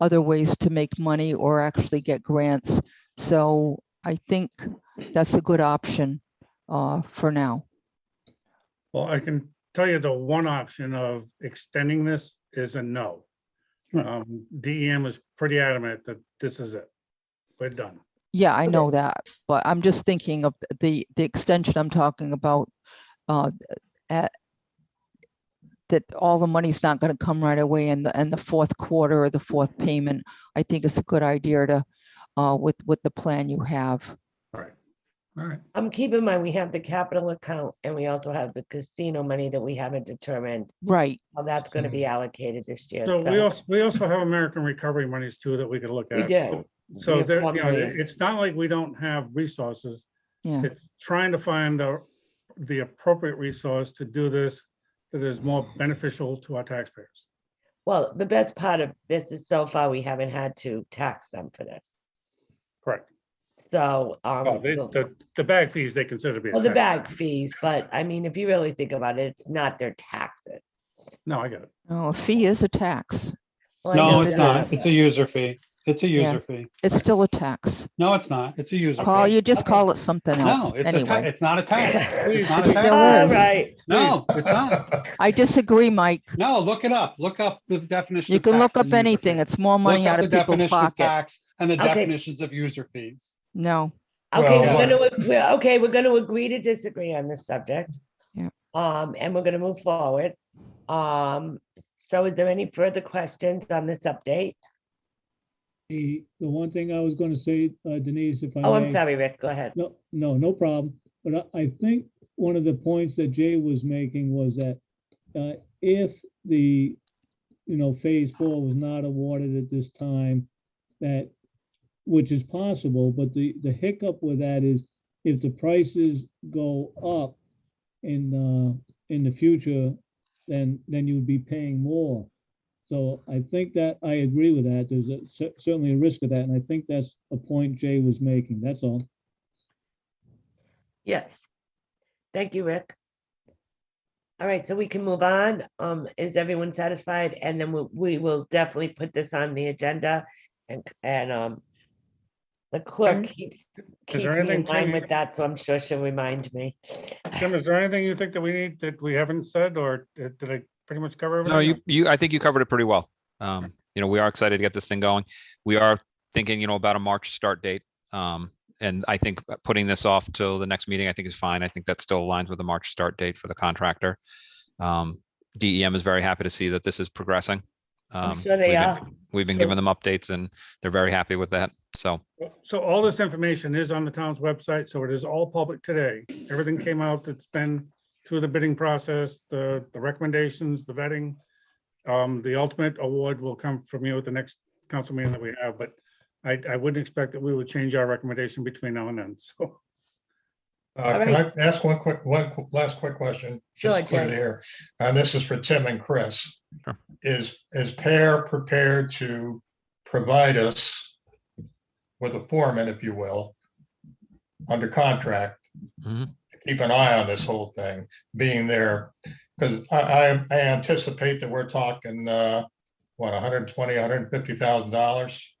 other ways to make money or actually get grants. So I think that's a good option uh, for now. Well, I can tell you the one option of extending this is a no. Right. Um, DEM is pretty adamant that this is it. We're done. Yeah, I Okay. know that, but I'm just thinking of the, the extension I'm talking about. uh, at- That all the money's not gonna come right away in the, in the fourth quarter or the fourth payment. I think it's a good idea to, uh, with, with the plan you have. All right. Um, keep in mind, we have the capital account and we also have the casino money that we haven't determined Right, how that's gonna be allocated this year. Mm. So we also, we also have American Recovery monies too that we could look We at. do. We So have there, one you know, million. it's not like we don't have resources. yeah, Hmm. It's trying to find the, the appropriate resource to do this that is more beneficial to our taxpayers. Well, the best part of this is so far, we haven't had to tax them for this. Correct. So, Oh, um, they- we'll- The, the bag fees, they consider to be. a well, the tax. bag fees, but I mean, if you really think about it, it's not their taxes. No, I get it. no, a fee is a tax. Well, I No, know it's it not. is. It's a user fee. It's a Yeah. user fee. It's still a tax. No, it's not. It's a user. fee. Paul, you just okay. call it something No, else it's a, ta- anyway. it's not a tax. It's not It a still tax. All is. right, No, it's not. I disagree, Mike. No, look it up. Look up the definition. You of can tax look and up user anything. fee. It's more Look money up out the of people's definition of pocket. tax And the Okay. definitions of user fees. No, okay, Well, we're gonna, we're- okay, we're gonna agree to disagree on this subject. Yeah. Um, and we're gonna move forward. Um, so is there any further questions on this update? The, the one thing I was gonna say, uh, Denise, if I Oh, I'm Mm. may- sorry, Rick, go ahead. No, no, no problem. But I, I think one of the points that Jay was making was that, uh, if the, you know, phase four was not awarded at this time, that, which is possible, but the, the hiccup with that is if the prices go up in, uh, in the future, then, then you'd be paying more. So I think that, I agree with that. There's a cer- certainly a risk of that, and I think that's a point Jay was making. That's all. Yes. Thank you, Rick. All right, so we can move on. Um, is everyone satisfied? And then we, we will definitely put this on the agenda and, and, um, the clerk keeps, there keeps me in anything, line Tanya? with that, so I'm sure she'll remind me. Jim, is there anything you think that we need that we haven't said or did did I pretty much cover everything? No, you, you, I think you covered it pretty well. Um, you know, we are excited to get this thing going. We are thinking, you know, about a March start date. Um, and I think putting this off till the next meeting, I think is fine. I think that still aligns with the March start date for the contractor. Um, DEM is very happy to see that this is progressing. I'm Um, sure we've they been- are. We've been So- giving them updates and they're very happy with that. So, Oh, So all this information is on the town's website, so it is all public today. Everything came out that's been through the bidding process, the, the recommendations, the vetting. Um, the ultimate award will come from you at the next council meeting that we have, but I, I wouldn't expect that we would change our recommendation between now and then, so. Uh, Can I ask one quick, one qu- last quick question? Sure, Just clear Jim. here. And this is for Tim and Chris. Sure. Is, is Pear prepared to provide us with a foreman, if you will, under contract? Mhm. to Keep an eye on this whole thing, being there, because I, I I anticipate that we're talking, uh, what, 120, 150,000 dollars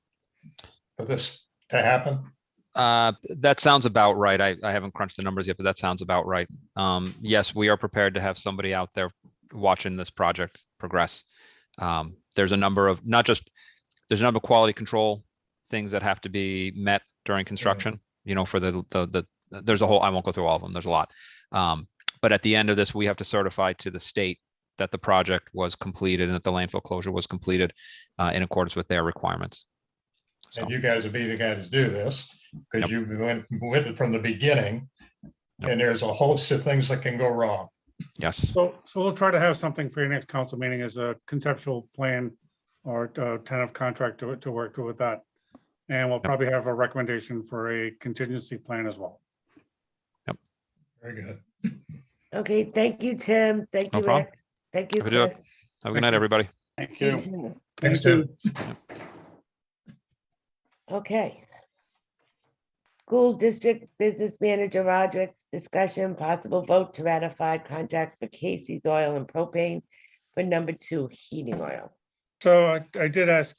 for this to happen? Uh, that sounds about right. I, I haven't crunched the numbers yet, but that sounds about right. Um, yes, we are prepared to have somebody out there watching this project progress. Um, there's a number of, not just, there's a number of quality control things that have to be met during construction, you know, for the, the, the, there's a whole, I won't go through all of them. There's a lot. Um, but at the end of this, we have to certify to the state that the project was completed and that the landfill closure was completed, uh, in accordance with their requirements. So, And you guys would be the guys to do this, Yep. because you've been with it from the beginning. Yep. And there's a host of things that can go wrong. yes. So, so we'll try to have something for your next council meeting as a conceptual plan or uh, tentative contract to, to work through with that. And we'll probably have a recommendation for a contingency plan as well. Very good. Okay, thank you, Tim. Thank No you, problem. Rick. Thank you, Have a good Chris. day. Have a good night, everybody. Thank You you. too. Thanks, Tim. Okay. School District Business Manager Roderick's discussion, possible vote to ratify contract for Casey's Oil and Propane for number two heating oil. So I, I did ask